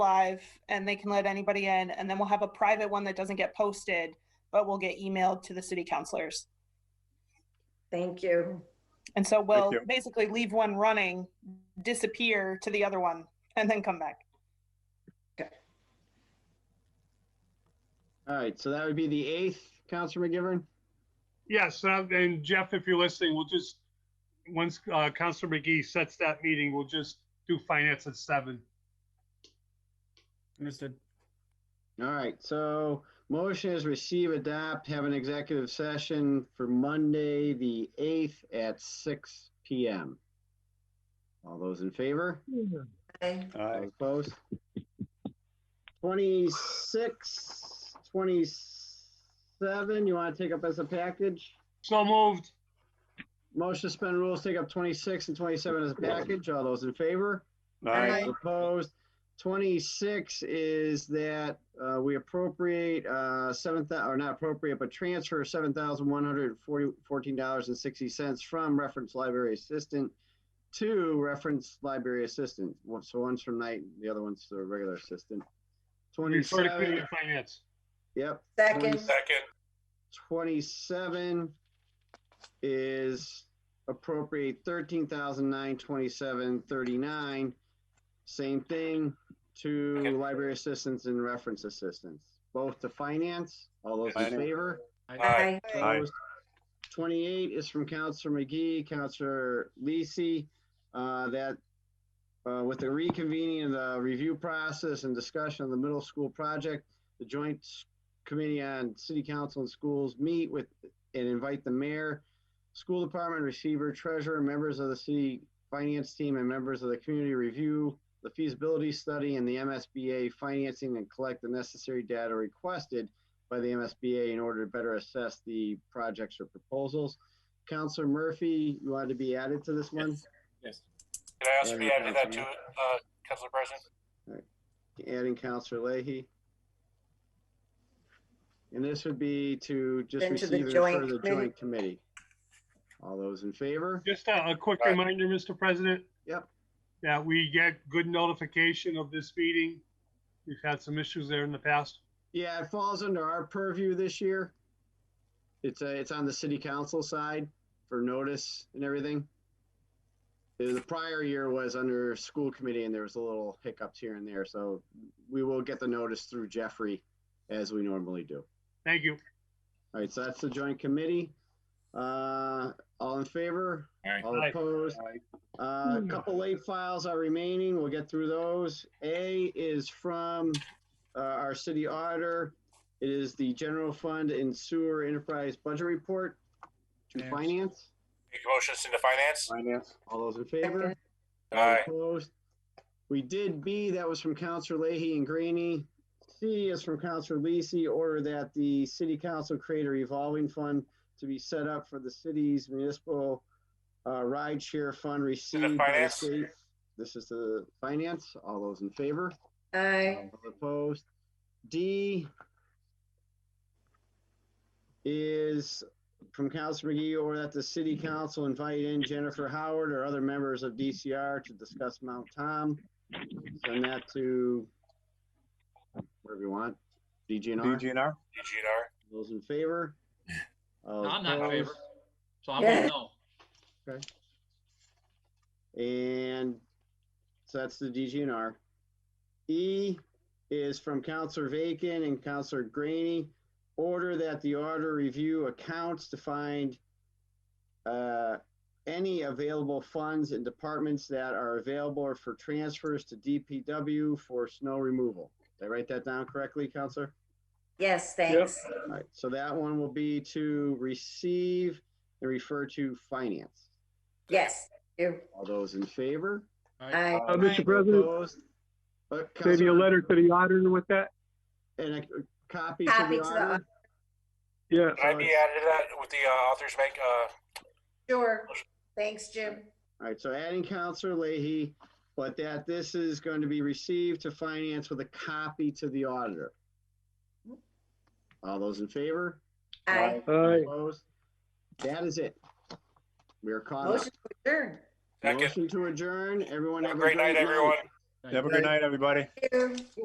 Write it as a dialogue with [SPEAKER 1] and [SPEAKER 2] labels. [SPEAKER 1] live and they can let anybody in and then we'll have a private one that doesn't get posted but will get emailed to the city councilors
[SPEAKER 2] Thank you.
[SPEAKER 1] and so we'll
[SPEAKER 3] you.
[SPEAKER 1] basically leave one running disappear to the other one and then come back
[SPEAKER 4] All right, so that would be the eighth, Counselor McGivern?
[SPEAKER 5] Yes, uh, and Jeff, if you're listening, we'll just, once uh, Counselor McGee sets that meeting, we'll just do finance at seven.
[SPEAKER 6] Understood.
[SPEAKER 4] All right, so motion is receive, adopt, have an executive session for Monday, the eighth at six PM. All those in favor?
[SPEAKER 2] Aye.
[SPEAKER 3] Aye.
[SPEAKER 4] Those Opposed? Twenty-six, twenty-seven, you want to take up as a package?
[SPEAKER 5] So moved.
[SPEAKER 4] Motion to suspend rules, take up twenty-six and twenty-seven as a package. All those in favor?
[SPEAKER 3] Aye.
[SPEAKER 4] Opposed. Twenty-six is that uh, we appropriate uh, seven thou, or not appropriate, but transfer seven thousand one hundred forty, fourteen dollars and sixty cents from reference library assistant to reference library assistant. One- So one's from night, the other one's the regular assistant.
[SPEAKER 5] Refer to Committee
[SPEAKER 4] Twenty-seven,
[SPEAKER 5] of Finance.
[SPEAKER 4] yep.
[SPEAKER 2] Second.
[SPEAKER 3] Second.
[SPEAKER 4] 27 is appropriate 13,927.39. Same thing to library assistance and reference assistance, both to finance. All those in
[SPEAKER 3] Finance.
[SPEAKER 4] favor?
[SPEAKER 2] Aye.
[SPEAKER 3] Aye.
[SPEAKER 4] Opposed? 28 is from Counselor McGee, Counselor Lisi, uh, that uh, with the reconvening of the review process and discussion of the middle school project, the Joint Committee on City Council and Schools meet with and invite the mayor, school department receiver, treasurer, members of the city finance team, and members of the community review the feasibility study and the MSBA financing and collect the necessary data requested by the MSBA in order to better assess the projects or proposals. Counselor Murphy, you wanted to be added to this one?
[SPEAKER 6] Yes.
[SPEAKER 7] Can I also
[SPEAKER 4] Yeah,
[SPEAKER 7] be
[SPEAKER 4] you
[SPEAKER 7] added to
[SPEAKER 4] can,
[SPEAKER 7] that too,
[SPEAKER 4] Jimmy.
[SPEAKER 7] uh, Council President?
[SPEAKER 4] Adding Counselor Leahy. And this would be to just
[SPEAKER 2] Into the
[SPEAKER 4] receive and
[SPEAKER 2] joint
[SPEAKER 4] refer to the
[SPEAKER 2] committee.
[SPEAKER 4] joint committee. All those in favor?
[SPEAKER 5] Just a, a quick
[SPEAKER 7] Aye.
[SPEAKER 5] reminder, Mr. President.
[SPEAKER 4] Yep.
[SPEAKER 5] That we get good notification of this meeting. We've had some issues there in the past.
[SPEAKER 4] Yeah, it falls under our purview this year. It's, uh, it's on the city council side for notice and everything. The the prior year was under school committee and there was a little hiccups here and there, so we will get the notice through Jeffrey as we normally do.
[SPEAKER 5] Thank you.
[SPEAKER 4] All right, so that's the joint committee. Uh, all in favor?
[SPEAKER 7] Aye.
[SPEAKER 4] All
[SPEAKER 5] Aye.
[SPEAKER 4] opposed? Uh, a couple late files are remaining. We'll get through those. A is from, uh, our city auditor. It is the general fund and sewer enterprise budget report to
[SPEAKER 6] Yes.
[SPEAKER 4] finance.
[SPEAKER 7] Make motions into finance?
[SPEAKER 3] Finance.
[SPEAKER 4] All those in favor?
[SPEAKER 2] Second.
[SPEAKER 4] All
[SPEAKER 7] Aye.
[SPEAKER 4] Opposed? We did B, that was from Counselor Leahy and Graney. C is from Counselor Lisi, order that the city council create a revolving fund to be set up for the city's municipal uh, ride share fund received by the
[SPEAKER 7] finance?
[SPEAKER 4] state. This is the finance. All those in favor?
[SPEAKER 2] Aye.
[SPEAKER 4] All Opposed. D is from Council McGee or that the city council invite in Jennifer Howard or other members of DCR to discuss Mount Tom. Send that to wherever you want. DGNR,
[SPEAKER 3] DGNR?
[SPEAKER 7] DGNR?
[SPEAKER 4] those in favor? All
[SPEAKER 8] I'm not in favor.
[SPEAKER 4] opposed?
[SPEAKER 8] So I'm going
[SPEAKER 2] Yeah.
[SPEAKER 8] to no.
[SPEAKER 4] And so that's the DGNR. E is from Counselor Vacan and Counselor Graney. Order that the auditor review accounts to find uh, any available funds and departments that are available for transfers to DPW for snow removal. Did I write that down correctly, Counselor?
[SPEAKER 2] Yes, thanks.
[SPEAKER 4] All right, so that one will be to receive and refer to finance.
[SPEAKER 2] Yes, you.
[SPEAKER 4] All those in favor?
[SPEAKER 2] Aye.
[SPEAKER 3] Uh,
[SPEAKER 5] Mr. President,
[SPEAKER 4] Opposed? But
[SPEAKER 5] maybe a
[SPEAKER 4] Counselor-
[SPEAKER 5] letter to the auditor with that?
[SPEAKER 4] And a copy to
[SPEAKER 2] Copy
[SPEAKER 4] the
[SPEAKER 2] to the
[SPEAKER 4] auditor?
[SPEAKER 5] Yeah.
[SPEAKER 7] Can I be added to that with the uh, authors make, uh,
[SPEAKER 2] Sure. Thanks, Jim.
[SPEAKER 4] All right, so adding Counselor Leahy, but that this is going to be received to finance with a copy to the auditor. All those in favor?
[SPEAKER 2] Aye.
[SPEAKER 4] Opposed? That is it. We are caught up.
[SPEAKER 2] Motion to adjourn.
[SPEAKER 7] Second.
[SPEAKER 4] Motion to adjourn. Everyone have a
[SPEAKER 7] great night, everyone?
[SPEAKER 8] Have a good night, everybody.
[SPEAKER 6] Thank you.